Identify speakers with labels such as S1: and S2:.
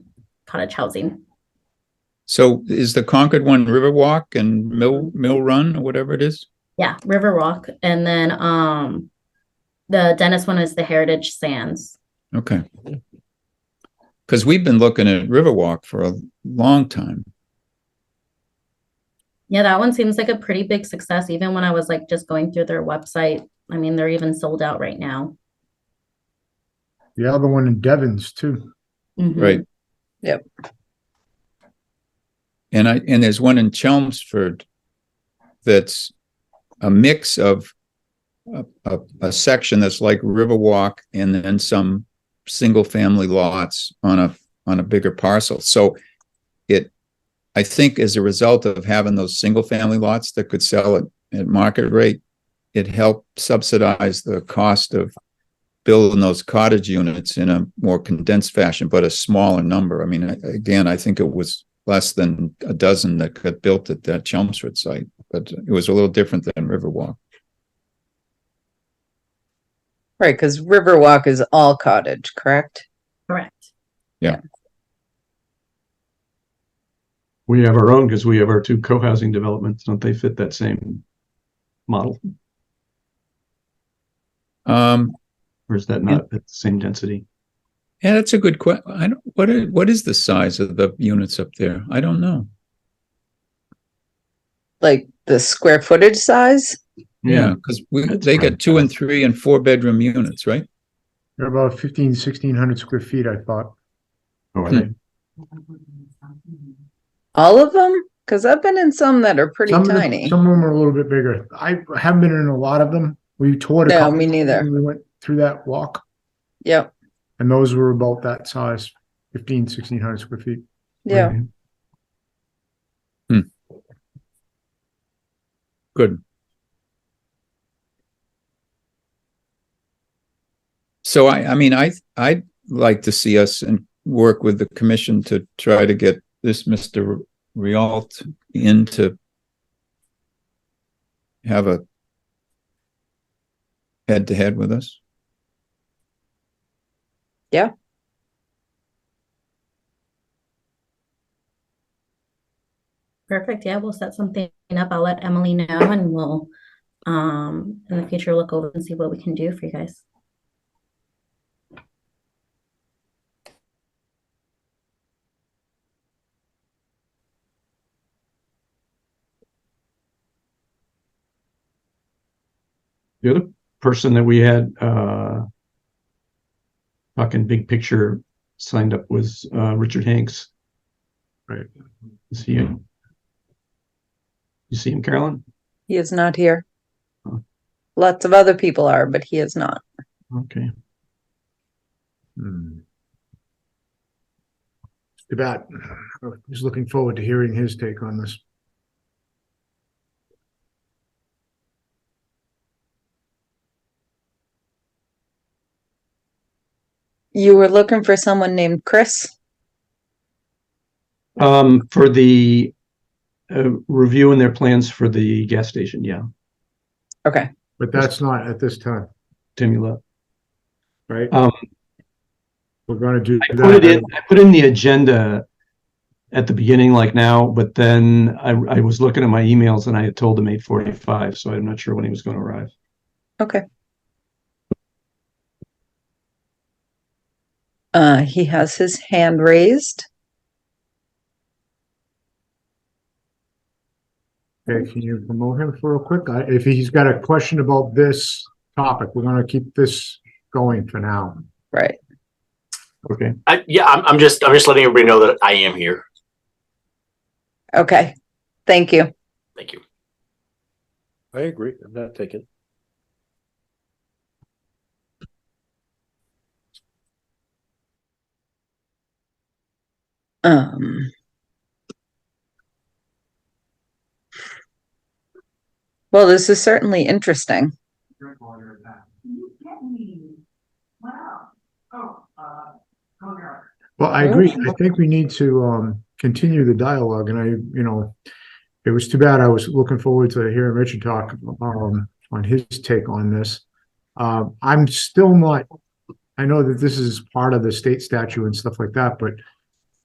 S1: cottage housing.
S2: So is the Concord one Riverwalk and Mill, Mill Run or whatever it is?
S1: Yeah, Riverwalk. And then um the Dennis one is the Heritage Sands.
S2: Okay. Because we've been looking at Riverwalk for a long time.
S1: Yeah, that one seems like a pretty big success, even when I was like just going through their website. I mean, they're even sold out right now.
S3: The other one in Devon's too.
S1: Mhm.
S2: Right.
S4: Yep.
S2: And I, and there's one in Chelmsford that's a mix of a, a, a section that's like Riverwalk and then some single-family lots on a, on a bigger parcel. So it, I think as a result of having those single-family lots that could sell at, at market rate, it helped subsidize the cost of building those cottage units in a more condensed fashion, but a smaller number. I mean, I- again, I think it was less than a dozen that got built at that Chelmsford site, but it was a little different than Riverwalk.
S4: Right, because Riverwalk is all cottage, correct?
S1: Correct.
S5: We have our own because we have our two co-housing developments. Don't they fit that same model?
S2: Um,
S5: Or is that not at the same density?
S2: yeah, that's a good question. I don't, what is, what is the size of the units up there? I don't know.
S4: Like the square footage size?
S2: Yeah, because we,
S5: That's
S2: they
S5: right.
S2: got two and three and four bedroom units, right?
S3: They're about 15, 1600 square feet, I thought.
S5: Oh, are they?
S4: All of them? Because I've been in some that are pretty
S3: Some of them-
S4: tiny.
S3: Some of them are a little bit bigger. I haven't been in a lot of them. We toured a
S4: No,
S3: couple
S4: me neither.
S3: when We went through that walk
S4: Yep,
S3: and those were about that size, 15, 1600 square feet.
S4: yeah.
S5: Right.
S2: Good. So I, I mean, I, I'd like to see us and work with the commission to try to get this Mr. Rialt in to have a head to head with us.
S4: Yeah.
S1: Perfect. Yeah, we'll set something up. I'll let Emily know and we'll um in the future look over and see what we can do for you guys.
S5: The other person that we had, uh, talking big picture signed up was, uh, Richard Hanks. Right. Is he? You see him, Carolyn?
S4: He is not here.
S5: Huh.
S4: Lots of other people are, but he is not.
S5: Okay.
S3: Hmm. Too bad. I was looking forward to hearing his take on this.
S4: You were looking for someone named Chris?
S5: Um, for the, uh, reviewing their plans for the gas station. Yeah.
S4: Okay,
S3: But that's not at this time,
S5: Timmy Love.
S3: right?
S5: Um,
S3: We're gonna do.
S5: I
S3: that
S5: put it in, I put in the agenda at the beginning like now, but then I, I was looking at my emails and I had told him eight forty-five, so I'm not sure when he was going to arrive.
S4: okay. Uh, he has his hand raised.
S3: Okay, can you promote him for real quick? I- If he's got a question about this topic, we're gonna keep this going for now.
S4: Right.
S5: Okay.
S6: I, yeah, I'm, I'm just, I'm just letting everybody know that I am here.
S4: Okay. Thank you.
S6: Thank you.
S7: I agree. I'm not taking.
S4: Um. Well, this is certainly interesting.
S3: Well, I agree. I think we need to, um, continue the dialogue and I, you know, it was too bad. I was looking forward to hearing Richard talk, um, on his take on this. Um, I'm still not, I know that this is part of the state statute and stuff like that, but